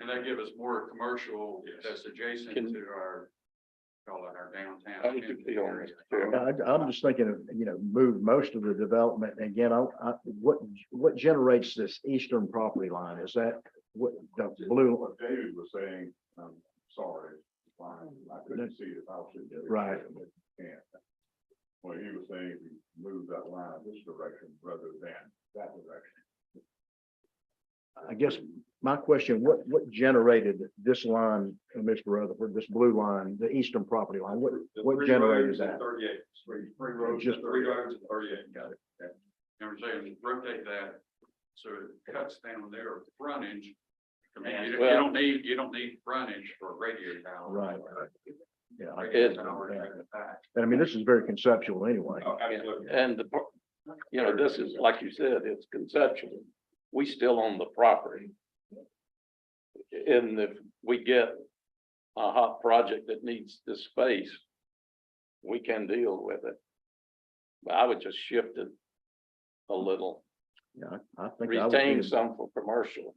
And that give us more commercial Yes. that's adjacent Can- to our, call it our downtown. I was just thinking on this, yeah. I, I'm just thinking of, you know, move most of the development, And again, I, I, what, what generates this eastern property line, is that what, the blue, What David was saying, I'm sorry, it's fine, I couldn't see it, I was. sitting there. Right. Yeah. Well, he was saying, if you move that line this direction rather than that direction. I guess, my question, what, what generated this line, uh, Mr. Rutherford, this blue line, the eastern property line, what, The what three generated roads and that? Thirty-eight, three, three roads, Just- and three roads and thirty-eight. Got it. And we're saying rotate that, so it cuts down their frontage. I mean, you don't- you Well- don't need, you don't need frontage for a radio tower. Right. Yeah, I- Radio It- tower is in the back. and I mean, this is very conceptual anyway. Oh, absolutely. And the, pro- you know, this is, like you said, it's conceptual. We still own the property. And if we get a hot project that needs this space, we can deal with it. But I would just shift it a little, Yeah, I I think. I would be retain in- some for commercial.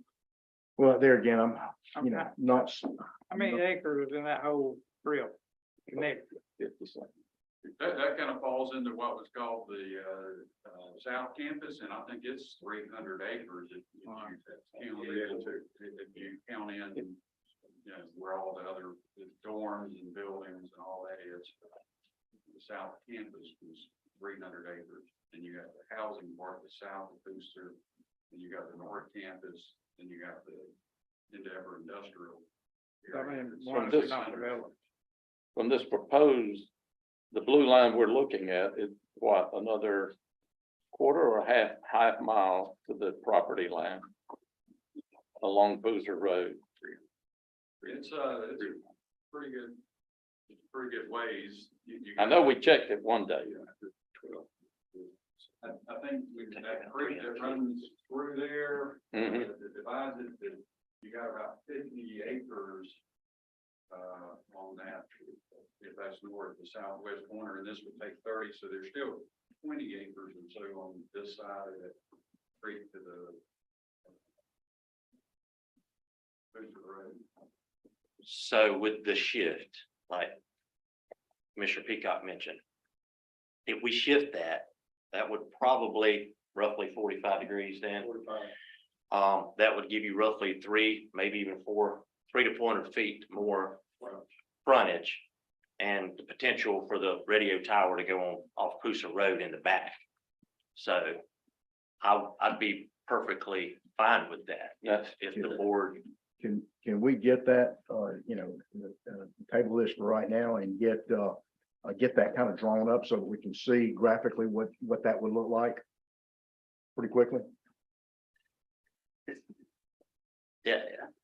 Well, there again, I'm, you know, How not, s- many acres was in that whole drill? Connect, if it's like- That, that kind of falls into what was called the, uh, uh, South Campus, and I think it's three hundred acres if if you count in, to- if you count in, you know, where all the other dorms and buildings and all that is. The South Campus was three hundred acres, and you got the housing part, the South Booster, and you got the North Campus, and you got the Endeavor Industrial. I area. mean, It's one of sort these- 600 acres. From this proposed, the blue line we're looking at is what, another quarter or half, half mile to the property line along Boozer Road. It's, uh, it's a pretty good, it's pretty good ways. You- you I know we checked it one day. I, I think we, that creek that runs through there, uh, Mhm. that that divides it, that you got about fifty acres uh, on that, if that's north, the southwest corner, and this would take thirty, so there's still twenty acres and so on this side of that creek to the uh, Booster Road. So with the shift, like Commissioner Peacock mentioned, if we shift that, that would probably roughly forty-five degrees then. Um, that would give you roughly three, maybe even four, three to four hundred feet more frontage and the potential for the radio tower to go on off Coosa Road in the back. So I, I'd be perfectly fine with that if, if the board can, can we get that, uh, you know, uh, table this for right now and get, uh, uh, get that kind of drawn up so that we can see graphically what, what that would look like? Pretty quickly? Yeah,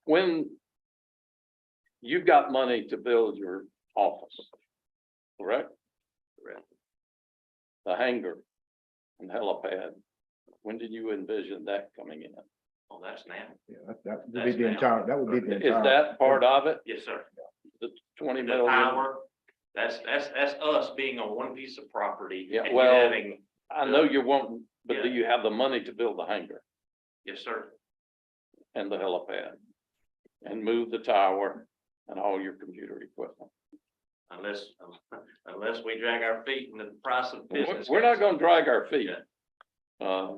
When you've got money to build your office, correct? Correct. The hangar and helipad, when did you envision that coming in? well, oh, that's now. Yeah, that- that would That's be the now. entire, that would be the Is entire. that part of it, Yes, sir. the twenty The million? power, that's, that's, that's us being on one piece of property. Yeah, and well- having- I know you won't, but do Yeah. you have the money to build the hangar Yes, sir. and the helipad? And move the tower and all your computer equipment? Unless, unless we drag our feet in the price of We're- business. We're not gonna drag our feet. Yeah. Uh,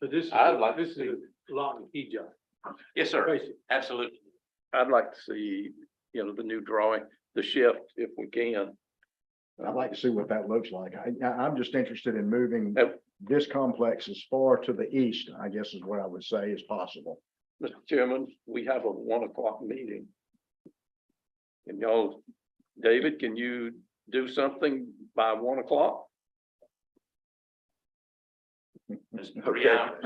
So this is, I'd like a- to this is see- a lot of key job, Yes, sir. basically. Absolutely. I'd like to see, you know, the new drawing, the shift, if we can. I'd like to see what that looks like. I, I- I'm just interested in moving Uh, this complex as far to the east, I guess is what I would say is possible. Mr. Chairman, we have a one o'clock meeting. And y'all, David, can you do something by one o'clock? It's three Okay. hours.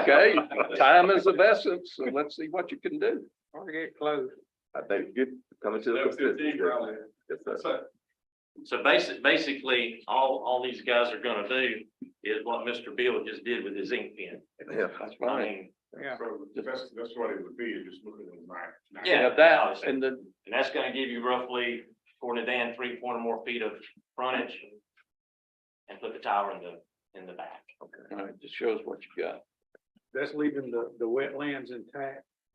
Okay, time is of essence, so let's see what you can do. or get close. I think good coming to the That was consensus. fifteen probably. Yes, sir. So So basic, basically, all, all these guys are gonna do is what Mr. Bill just did with his ink pen. Yeah. That's I fine. mean, Yeah. So that's, that's what it would be, is just looking at the map. now. Yeah. Yeah, that, and the, And that's gonna give you roughly, according to Dan, three, four more feet of frontage. And put the tower in the, in the back. all right, just shows what you got. That's leaving the, the wetlands intact.